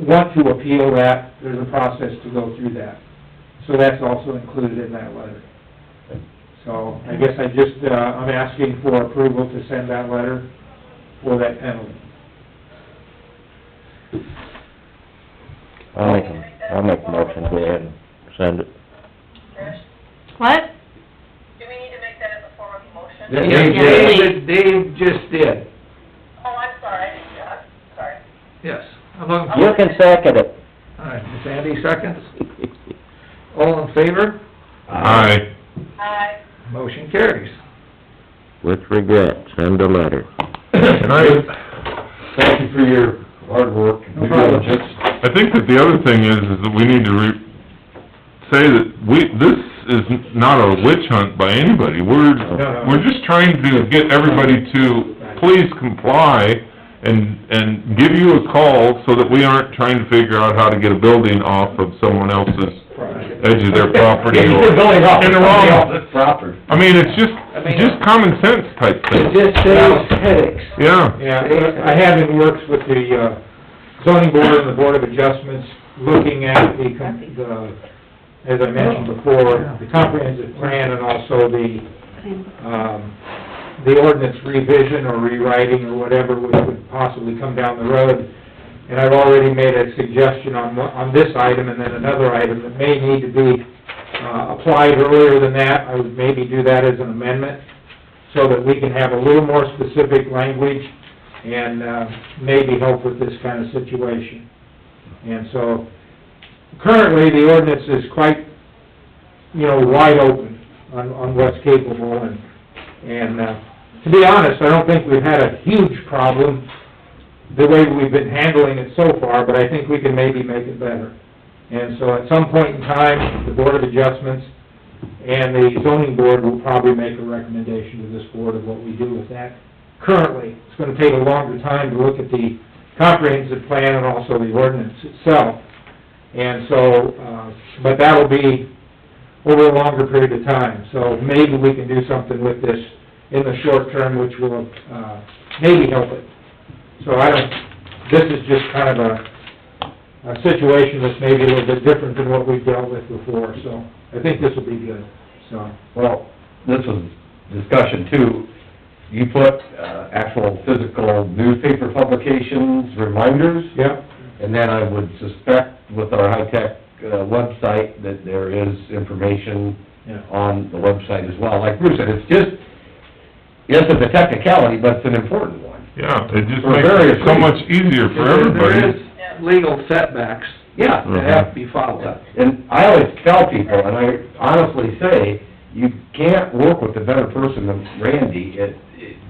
want to appeal that, there's a process to go through that. So that's also included in that letter. So I guess I just, uh, I'm asking for approval to send that letter for that penalty. I'll make, a- I'll make a motion, go ahead and send it. Trish, What? do we need to make that as a form of motion? Dave Yeah, did, Dave just did, Oh, I'm sorry, I didn't, uh, sorry. yes. I'm looking for, You can second it. all right, Sandy seconds, all in favor, Aye. I, motion carries. With regret, send a letter. And I, Thank you for your hard work and No due problem. diligence. I think that the other thing is, is that we need to re, say that we, this is not a witch hunt by anybody. We're, no. we're just trying to get everybody to please comply and, and give you a call so that we aren't trying to figure out how to get a building off of someone else's edge of their property Yeah, you or... did really well. In the wrong, Proper. I mean, it's just, just common sense type It thing, just saves headaches. yeah. Yeah, I have in works with the uh, zoning board and the board of adjustments, looking at the, com- the, as I mentioned before, the comprehensive plan and also the, um, the ordinance revision or rewriting or whatever would would possibly come down the road. And I've already made a suggestion on, one- on this item and then another item that may need to be uh, applied earlier than that. I would maybe do that as an amendment so that we can have a little more specific language and uh, maybe help with this kind of situation. And so, currently, the ordinance is quite, you know, wide open on, on what's capable, and, and, uh, to be honest, I don't think we've had a huge problem the way we've been handling it so far, but I think we can maybe make it better. And so, at some point in time, the Board of Adjustments and the zoning board will probably make a recommendation to this board of what we do with that. Currently, it's gonna take a longer time to look at the comprehensive plan and also the ordinance itself. And so, uh, but that'll be over a longer period of time. So maybe we can do something with this in the short term, which will, uh, maybe help it. So I don't, this is just kind of a, a situation that's maybe a little bit different than what we've dealt with before, so I think this will be good, so. Well, this was discussion too. You put, uh, actual physical newspaper publications, reminders, Yep, and then I would suspect with our high-tech, uh, website that there is information yeah. on the website as well. Like Bruce said, it's just, yes, it's a technicality, but it's an important one. Yeah, it just For makes it so various much easier for everybody. There is legal setbacks Yeah. that Mm-hmm. have to be followed. And I always tell people, and I honestly say, you can't work with a better person than Randy at-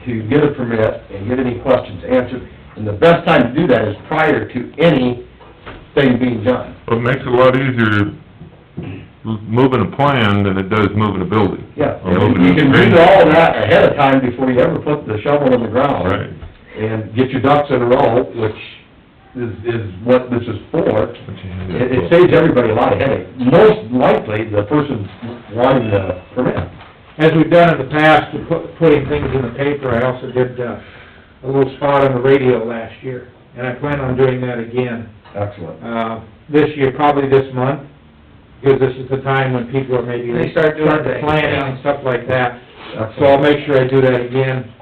to get a permit and get any questions answered. And the best time to do that is prior to anything being done. Well, It makes it a lot easier moving a plan than it does moving a building. Yeah, Or moving you a can screen. do all that ahead of time before you ever put the shovel in the ground. Right. And get your ducks in a row, which is, is what this is for. But you have It, that- it saves everybody a lot of headache. Most likely, the person wanting the permit. As we've done in the past, with pu- putting things in the paper, I also did, uh, a little spot on the radio last year, and I plan on doing that again, Excellent. uh, this year, probably this month, because this is the time when people are maybe... They start doing things, planning yeah. and stuff like that, so I'll Excellent. make sure I do that again,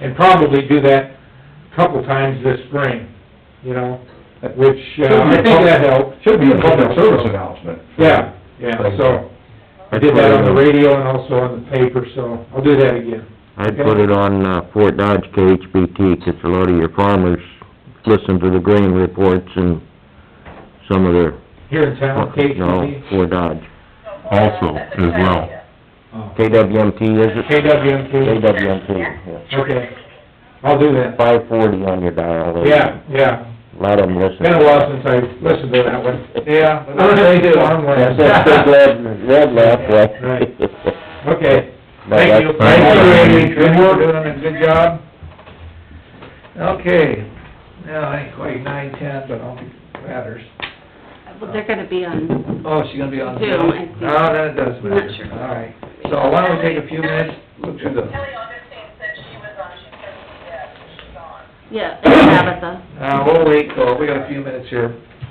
and probably do that a couple times this spring, you know, which, uh, I think that helped. Should be a public service announcement. Yeah, yeah, so, I did that on the radio and also on the paper, so I'll do that again. I'd put it on uh, Fort Dodge KHBT, 'cause a lot of your farmers listen to the grain reports and some of their... Here in town, No, KTV, Fort Dodge. no, hold on, Also, that's a good as well. idea. Oh, KWMT, is it? KWMT, KWMT, yeah. okay, I'll do that. Five forty on your dial. there. Yeah, yeah, Let them listen. been a while since I listened to that one. Yeah. I don't think they do. That's that big red, red left, right? Right. Okay, Thank you. Thank you, Randy. Good work, doing a good job. Okay, now, I ain't quite nine ten, but I'll be matters. Well, they're gonna be on, Oh, she's gonna be on Zoom, Zoom? I think. No, then it does matter. Not sure. All right, so why don't we take a few minutes, look through the, Kelly Augustine said she was on, she said, yeah, she's on. yeah, it's Tabitha. Uh, we'll wait, till we got a few minutes here.